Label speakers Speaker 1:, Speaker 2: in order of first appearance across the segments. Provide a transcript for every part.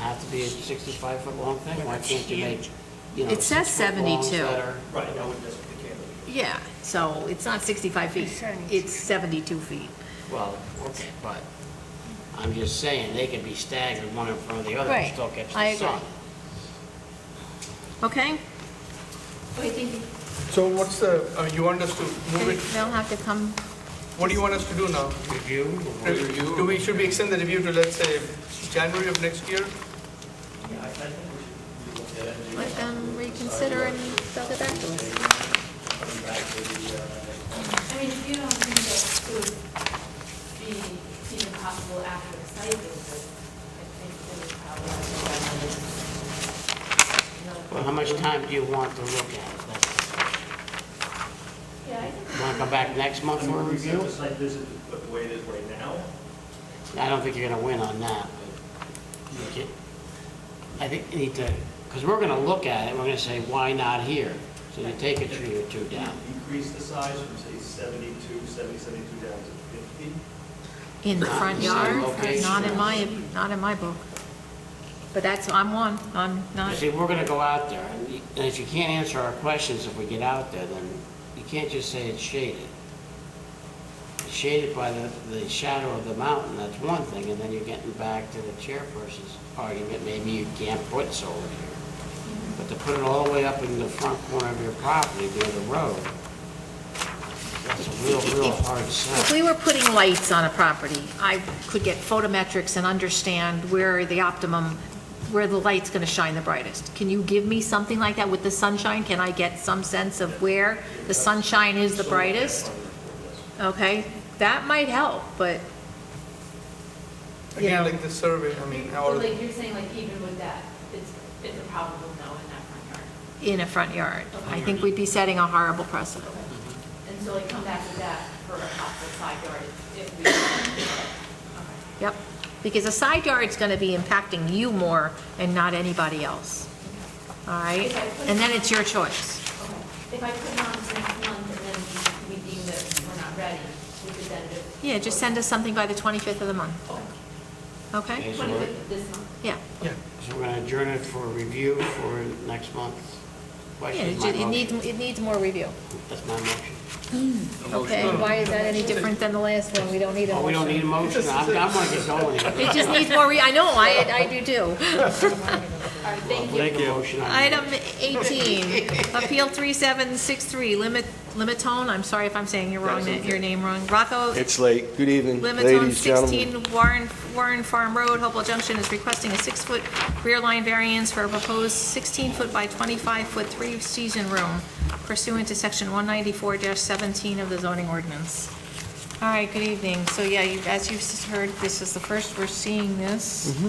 Speaker 1: have to be a 65-foot long thing? Why can't you make, you know,
Speaker 2: It says
Speaker 1: six-foot longs
Speaker 2: 72.
Speaker 1: that are-
Speaker 3: Right, that would just be cantilever.
Speaker 2: Yeah, so it's not 65 feet, it's 72 feet.
Speaker 1: Well, okay, but I'm just saying, they could be staggered one in front of the other
Speaker 2: Right,
Speaker 1: and still catch the
Speaker 2: I agree.
Speaker 1: sun.
Speaker 2: Okay?
Speaker 4: Wait, thank you.
Speaker 5: So what's the, uh, you want us to move
Speaker 2: They'll
Speaker 5: it,
Speaker 2: have to come,
Speaker 5: what do you want us to do now?
Speaker 1: Review? or
Speaker 5: Do we, should we extend the review to, let's say, January of next year?
Speaker 3: Yeah, I I think we should look at it. and do
Speaker 2: let them reconsider and they'll get back to us.
Speaker 3: Coming back to the, uh,
Speaker 4: I mean, if you don't think that it would be even possible after a site visit, I think that it's probably
Speaker 1: Well,
Speaker 4: another.
Speaker 1: how much time do you want to look at it?
Speaker 4: Yeah, I think.
Speaker 1: Want to come back next month for a review?
Speaker 3: It's like this is the way it is right now.
Speaker 1: I don't think you're going to win on that, but you get- I think you need to, because we're going to look at it, we're going to say, why not here? So you take a tree or two down.
Speaker 3: Increase the size from, say, 72, 70, 72 down to 50.
Speaker 2: In the
Speaker 1: Not
Speaker 2: front
Speaker 1: in the same
Speaker 2: yard,
Speaker 1: location.
Speaker 2: not in my, not in my book. But that's, I'm one, I'm
Speaker 1: You
Speaker 2: not,
Speaker 1: See, we're going to go out there, and you- and if you can't answer our questions if we get out there, then you can't just say it's shaded. It's Shaded by the, the shadow of the mountain, that's one thing, and then you're getting back to the chairperson's argument, maybe you can't put solar here. But to put it all the way up in the front corner of your property near the road, that's a real, real hard
Speaker 2: if
Speaker 1: sell.
Speaker 2: we were putting lights on a property, I could get photometrics and understand where the optimum, where the light's going to shine the brightest. Can you give me something like that with the sunshine? Can I get some sense of where the sunshine is the
Speaker 3: So,
Speaker 2: brightest?
Speaker 3: yes.
Speaker 2: Okay, that might help, but, you
Speaker 5: Again,
Speaker 2: know,
Speaker 5: like the survey, I mean,
Speaker 4: So
Speaker 5: our,
Speaker 4: like you're saying, like even with that, it's, it's a probable no in that front yard.
Speaker 2: in a front yard. I think we'd be setting a horrible precedent.
Speaker 4: And so like come back with that for a possible side yard if we. Okay.
Speaker 2: Yep, because a side yard's gonna be impacting you more and not anybody else, all right? And then it's your choice.
Speaker 4: If I put it on for next month and then we deem that we're not ready, we could then just.
Speaker 2: Yeah, just send us something by the 25th of the month, okay?
Speaker 1: Okay, so
Speaker 4: Twenty
Speaker 1: we're-
Speaker 4: fifth this month.
Speaker 2: Yeah,
Speaker 5: yeah,
Speaker 1: so we're going to adjourn it for review for next month.
Speaker 2: yeah,
Speaker 1: Question
Speaker 2: it
Speaker 1: my
Speaker 2: ju- it needs,
Speaker 1: motion.
Speaker 2: it needs more review.
Speaker 1: That's my motion.
Speaker 2: Okay, why is that any different than the last one? We don't need a
Speaker 1: Oh, we don't need a
Speaker 2: motion.
Speaker 1: motion, I'm, I'm gonna get going here.
Speaker 2: It just needs more re, I know, I, I do too.
Speaker 4: All right, thank you.
Speaker 1: Make a motion. on
Speaker 2: Item 18, Appeal 3763, limit, Limatone, I'm sorry if I'm saying your wrong, na- your name wrong, Rocco
Speaker 6: It's late. Good evening,
Speaker 2: Limits on
Speaker 6: ladies, gentlemen.
Speaker 2: 16 Warren, Warren Farm Road, Hopewell Junction is requesting a six-foot rear line variance for a proposed 16-foot by 25-foot three-season room pursuant to section 194-17 of the zoning ordinance. All right, good evening. So yeah, you- as you've s- heard, this is the first we're seeing this.
Speaker 6: Mm-hmm.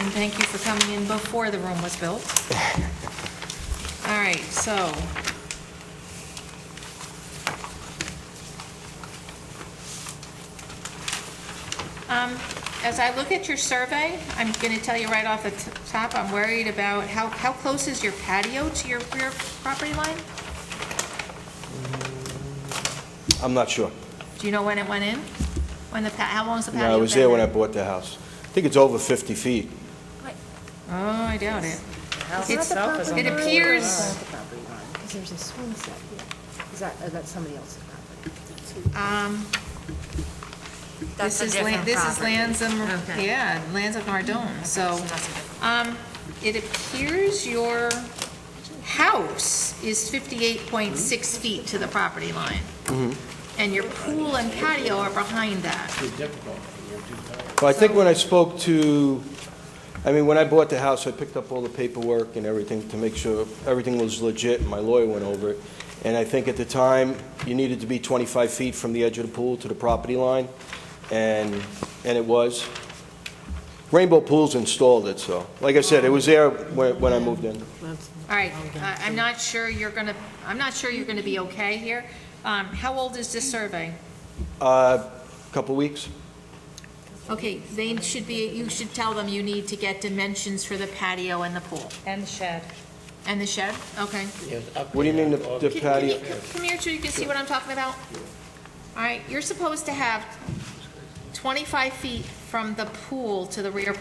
Speaker 2: And thank you for coming in before the room was built. All right, so Um, As I look at your survey, I'm going to tell you right off the t- top, I'm worried about how, how close is your patio to your rear property line?
Speaker 6: I'm not sure.
Speaker 2: Do you know when it went in? When the, pa- how long's the patio
Speaker 6: No, I
Speaker 2: been?
Speaker 6: was there when I bought the house. I think it's over 50 feet.
Speaker 2: Oh, I doubt it. It's- It appears,
Speaker 7: Because there's a swing set here. Is that, uh, that's somebody else's property?
Speaker 2: um, this
Speaker 8: That's a
Speaker 2: is, Lan-
Speaker 8: different
Speaker 2: this is
Speaker 8: property.
Speaker 2: lands of,
Speaker 8: Okay.
Speaker 2: yeah, lands of Nardone, so. Um, it appears your house is 58.6 feet to the property line. And your pool and patio are behind that.
Speaker 6: Well, I think when I spoke to, I mean, when I bought the house, I picked up all the paperwork and everything to make sure everything was legit. My lawyer went over it. And I think at the time, you needed to be 25 feet from the edge of the pool to the property line, and, and it was. Rainbow Pools installed it, so. Like I said, it was there when, when I moved in.
Speaker 2: All right, I- I'm not sure you're gonna, I'm not sure you're gonna be okay here. Um, how old is this survey?
Speaker 6: Uh, Couple weeks?
Speaker 2: Okay, they should be, you should tell them you need to get dimensions for the patio and the pool.
Speaker 8: And the shed.
Speaker 2: And the shed, okay.
Speaker 6: What do you mean the- the
Speaker 2: Can- can you
Speaker 6: patio?
Speaker 2: Come here so you can see what I'm talking about. All right, you're supposed to have 25 feet from the pool to the rear